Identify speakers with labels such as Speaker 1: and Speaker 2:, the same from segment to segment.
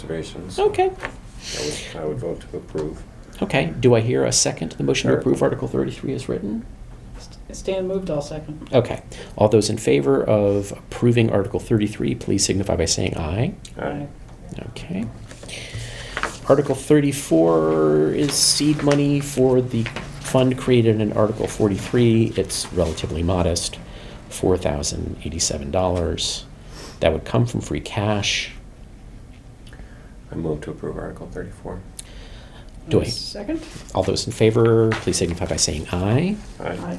Speaker 1: Conservation, so
Speaker 2: Okay.
Speaker 1: I would- I would vote to approve.
Speaker 2: Okay. Do I hear a second to the motion to
Speaker 1: Sure.
Speaker 2: approve Article 33 as written?
Speaker 3: Stan moved, I'll second.
Speaker 2: Okay. All those in favor of approving Article 33, please signify by saying aye.
Speaker 1: Aye.
Speaker 2: Okay. Article 34 is seed money for the fund created in Article 43. It's relatively modest, $4,087. That would come from free cash.
Speaker 1: I move to approve Article 34.
Speaker 2: Do I-
Speaker 3: Second?
Speaker 2: All those in favor, please signify by saying aye.
Speaker 1: Aye.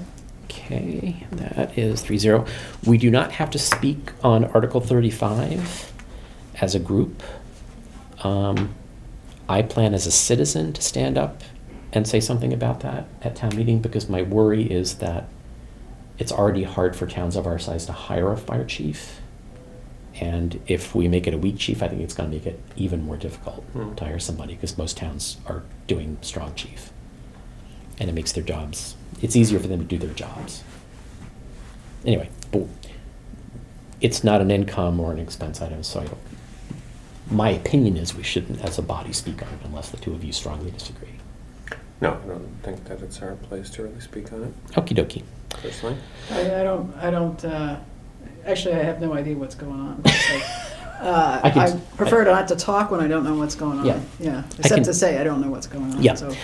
Speaker 2: Okay, that is 3 0. We do not have to speak on Article 35 as a group. Um, I plan as a citizen to stand up and say something about that at town meeting because my worry is that it's already hard for towns of our size to hire a fire chief. And if we make it a weak chief, I think it's going to make it even more difficult
Speaker 1: Hmm.
Speaker 2: to hire somebody because most towns are doing strong chief. And it makes their jobs, it's easier for them to do their jobs. Anyway, but it's not an income or an expense item, so I don't, my opinion is we shouldn't, as a body, speak on it unless the two of you strongly disagree.
Speaker 1: No, I don't think that it's our place to really speak on it
Speaker 2: Okie dokie.
Speaker 1: personally.
Speaker 3: I, I don't, I don't, uh, actually, I have no idea what's going on. so, uh,
Speaker 2: I can-
Speaker 3: I prefer not to talk when I don't know what's going on.
Speaker 2: Yeah.
Speaker 3: Yeah,
Speaker 2: can-
Speaker 3: except to say I don't know what's going on.
Speaker 2: Yeah.
Speaker 3: So, uh,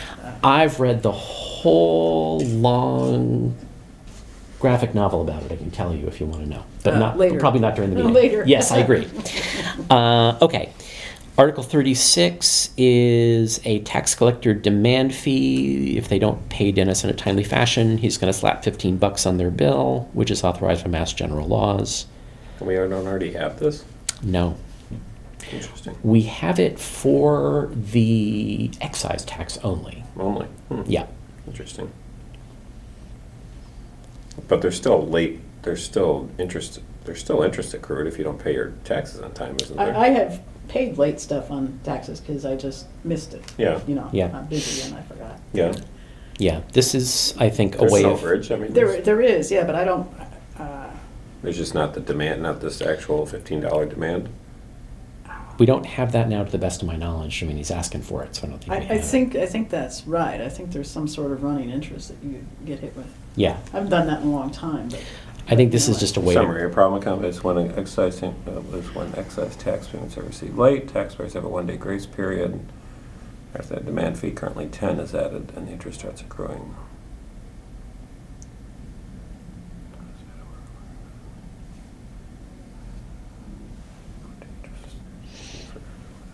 Speaker 2: I've read the whole long graphic novel about it. I can tell you if you want to know, but
Speaker 3: Uh,
Speaker 2: not but
Speaker 3: later.
Speaker 2: probably not during the meeting.
Speaker 3: Later.
Speaker 2: Yes, I agree. uh, okay. Article 36 is a tax collector demand fee. If they don't pay Dennis in a timely fashion, he's going to slap 15 bucks on their bill, which is authorized by Mass General laws.
Speaker 1: And we don't already have this?
Speaker 2: No.
Speaker 1: Interesting.
Speaker 2: We have it for the excise tax only.
Speaker 1: Only. Hmm.
Speaker 2: Yeah.
Speaker 1: Interesting. But there's still late, there's still interest, there's still interest accrued if you don't pay your taxes on time, isn't
Speaker 3: I,
Speaker 1: there?
Speaker 3: I have paid late stuff on taxes because I just missed it.
Speaker 1: Yeah.
Speaker 3: You know,
Speaker 2: Yeah.
Speaker 3: I'm busy and I forgot.
Speaker 1: Yeah.
Speaker 2: Yeah, this is, I think, a
Speaker 1: There's
Speaker 2: way
Speaker 1: an
Speaker 2: of.
Speaker 1: overage, I mean,
Speaker 3: There,
Speaker 1: there's
Speaker 3: there is, yeah, but I don't, uh,
Speaker 1: there's just not the demand, not this actual fifteen dollar demand.
Speaker 2: We don't have that now, to the best of my knowledge. I mean, he's asking for it, so I don't think.
Speaker 3: I,
Speaker 2: we
Speaker 3: I
Speaker 2: have it.
Speaker 3: think, I think that's right. I think there's some sort of running interest that you get hit with.
Speaker 2: Yeah,
Speaker 3: I haven't done that in a long time, but.
Speaker 2: I think this is just a way. to-
Speaker 1: Summary, a problem account is when an excise, uh, is when excise tax payments are received late, taxpayers have a one-day grace period. After that demand fee, currently ten is added, and the interest starts accruing.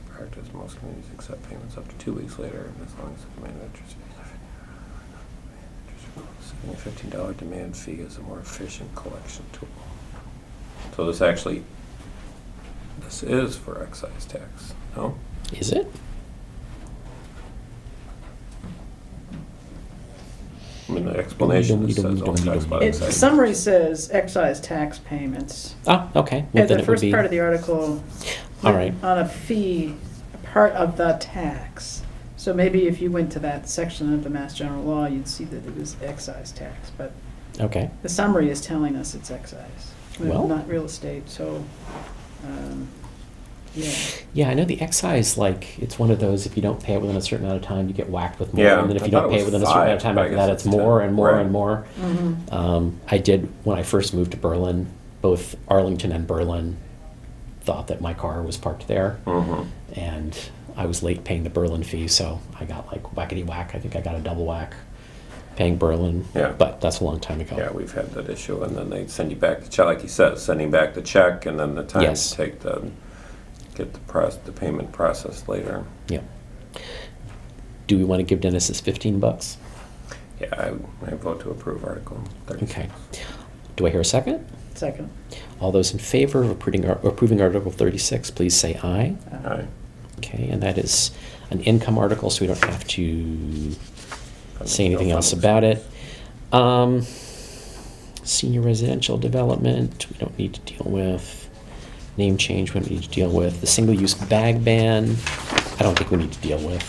Speaker 1: Practice, most communities accept payments up to two weeks later, as long as the demand interest. Setting a fifteen dollar demand fee is a more efficient collection tool. So this actually, this is for excise tax, no?
Speaker 2: Is it?
Speaker 1: I mean, the explanation is says all tax by
Speaker 3: It,
Speaker 1: excise.
Speaker 3: the summary says excise tax payments.
Speaker 2: Ah, okay. Well, then
Speaker 3: At the
Speaker 2: it would
Speaker 3: first
Speaker 2: be.
Speaker 3: part of the article.
Speaker 2: All right.
Speaker 3: On a fee, a part of the tax. So maybe if you went to that section of the Mass General Law, you'd see that it was excise tax, but
Speaker 2: Okay.
Speaker 3: the summary is telling us it's excise.
Speaker 2: Well-
Speaker 3: Not real estate, so, um, yeah.
Speaker 2: Yeah, I know the excise, like, it's one of those, if you don't pay it within a certain amount of time, you get whacked with more.
Speaker 1: Yeah,
Speaker 2: And then if
Speaker 1: I
Speaker 2: you
Speaker 1: thought
Speaker 2: don't
Speaker 1: it
Speaker 2: pay it
Speaker 1: was
Speaker 2: within a certain amount of
Speaker 1: five,
Speaker 2: time
Speaker 1: but I
Speaker 2: after
Speaker 1: guess
Speaker 2: that,
Speaker 1: it's
Speaker 2: it's more
Speaker 1: ten.
Speaker 2: and more
Speaker 1: Right.
Speaker 2: and more.
Speaker 3: Mhm.
Speaker 2: Um, I did, when I first moved to Berlin, both Arlington and Berlin thought that my car was parked there.
Speaker 1: Mhm.
Speaker 2: and I was late paying the Berlin fee, so I got like whackety whack. I think I got a double whack paying Berlin.
Speaker 1: Yeah.
Speaker 2: But that's a long time ago.
Speaker 1: Yeah, we've had that issue, and then they send you back the check, like he says, sending back the check, and then the time
Speaker 2: Yes.
Speaker 1: to take the, get the process, the payment process later.
Speaker 2: Yeah. Do we want to give Dennis his 15 bucks?
Speaker 1: Yeah, I, I vote to approve Article thirty.
Speaker 2: Okay. Do I hear a second?
Speaker 3: Second.
Speaker 2: All those in favor of approving, Ar- approving Article 36, please say aye.
Speaker 3: Uh,
Speaker 1: Aye.
Speaker 2: Okay, and that is an income article, so we don't have to say anything
Speaker 1: No findings.
Speaker 2: else about it. Um, senior residential development, we don't need to deal with. Name change, we don't need to deal with. The single-use bag ban, I don't think we need to deal with.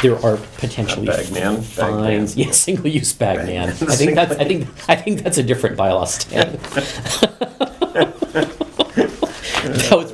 Speaker 2: There are potentially
Speaker 1: Uh, bag ban? Bag
Speaker 2: fines.
Speaker 1: ban.
Speaker 2: Yeah, single-use bag
Speaker 1: Bag
Speaker 2: ban.
Speaker 1: ban.
Speaker 2: I think that's, I think, I think that's a different bylaw, Stan.